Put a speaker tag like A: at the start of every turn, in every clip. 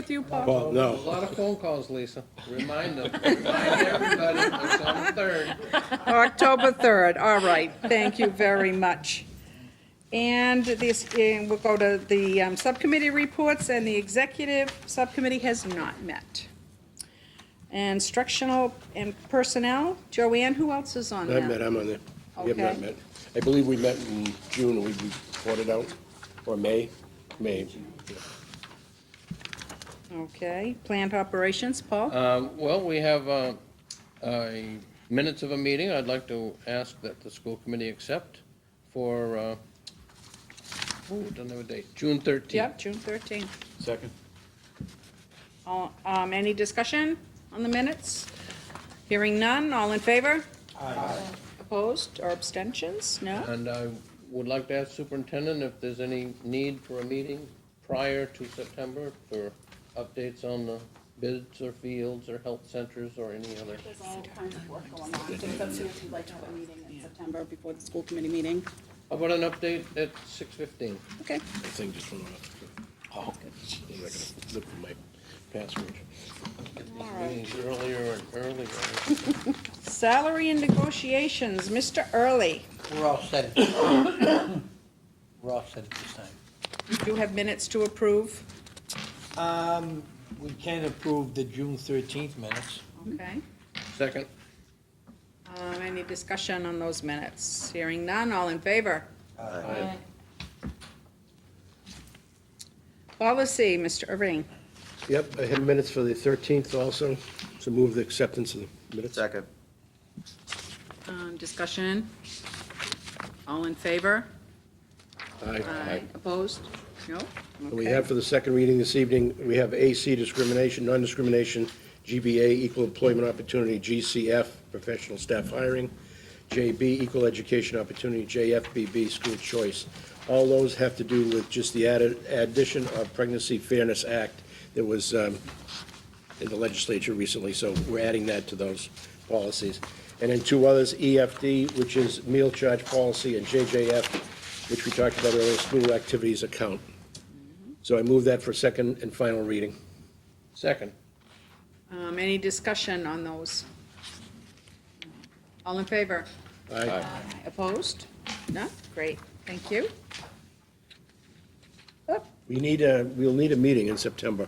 A: with you, Paul.
B: Well,
C: A
B: no,
C: lot of phone calls, Lisa. Remind them, remind everybody, it's on the third.
A: October 3rd, all right, thank you very much. And this, and we'll go to the um, subcommittee reports, and the executive subcommittee has not met. Instructional and personnel, Joanne, who else is on
B: I
A: that?
B: met, I'm on there. We have not
A: Okay.
B: met. I believe we met in June, we we sorted out, or May, May.
A: Okay, planned operations, Paul?
C: Um, Well, we have uh, a minutes of a meeting I'd like to ask that the school committee accept for, uh, ooh, don't have a date, June 13th.
A: Yep, June 13th.
D: Second.
A: All- um, Any discussion on the minutes? Hearing none, all in favor? Aye. Opposed or abstentions? No?
C: And I would like to ask superintendent if there's any need for a meeting prior to September for updates on the bids or fields or health centers or any other.
E: There's all kinds of work going on, just up to if you'd like to have a meeting in September before the school committee meeting.
C: How about an update at 6:15?
A: Okay.
B: The thing just went off. Oh, I'm not gonna look for my password.
C: Meetings Earlier and earlier.
A: Salary and negotiations, Mr. Early.
F: We're all set. at this time. We're all set at this time.
A: You have minutes to approve.
F: Um, we can approve the June thirteenth minutes.
A: Okay.
C: Second?
A: Um, Any discussion on those minutes? Hearing none, all in favor? Policy, Mr. Irving.
B: Yep, I have minutes for the 13th also, so move the acceptance of the minutes.
D: Second.
A: Um, Discussion? All in favor?
B: Aye.
A: Opposed? No?
B: We
A: Okay.
B: have for the second reading this evening, we have AC discrimination, non-discrimination, GBA, equal employment opportunity, GCF, professional staff hiring, JB, equal education opportunity, JFBB, school choice. All those have to do with just the added, addition of Pregnancy Fairness Act that was um, in the legislature recently, so we're adding that to those policies. And then two others, EFD, which is meal charge policy, and JJF, which we talked about earlier, school activities account. So I move that for second and final reading.
C: Second.
A: Um, Any discussion on those? All in favor?
B: Aye.
A: Opposed? No? Great, thank you. Oh,
B: We need a, we'll need a meeting in September.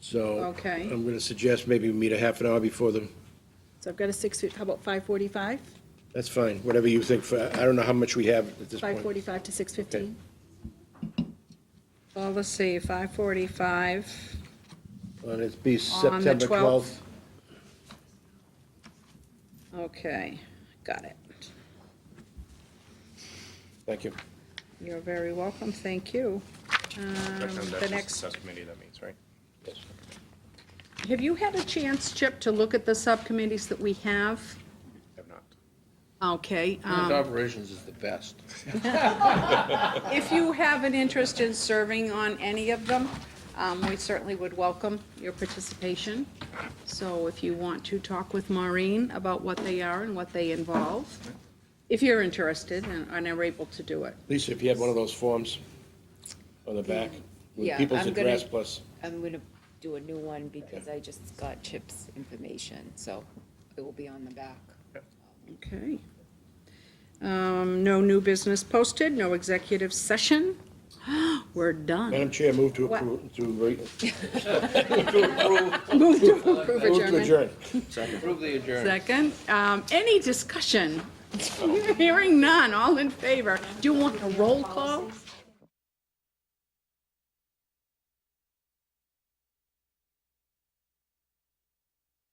B: So.
A: Okay.
B: I'm going to suggest maybe we meet a half an hour before the,
E: So I've got a six, how about five forty-five?
B: that's fine, whatever you think. for- I don't know how much we have at this point.
E: forty-five to six
B: fifteen?
A: Policy 545.
B: And it's
A: On
B: be
A: the
B: September 12th.
A: Okay, got it.
B: Thank you.
A: You're very welcome, thank you. Um, The next,
D: Subcommittee, that means, right?
A: have you had a chance, Chip, to look at the subcommittees that we have?
D: Have not.
A: Okay,
C: Women's
A: um,
C: operations is the best.
A: if you have an interest in serving on any of them, um, we certainly would welcome your participation. So if you want to talk with Maureen about what they are and what they involve, if you're interested and and are able to do it.
B: Lisa, if you had one of those forms on the back with
G: Yeah,
B: people's
G: I'm gonna-
B: address plus,
G: I'm gonna do a new one because I just got Chip's information, so it will be on the back.
A: Okay. Um, No new business posted, no executive session. We're done.
B: Madam Chair, move to
A: What?
B: approve, to re- move
A: Move to approve
B: to
A: adjournment.
B: adjourn.
C: Approve the adjournment.
A: Second, um, any discussion? Hearing none, all in favor. Do you want a roll call?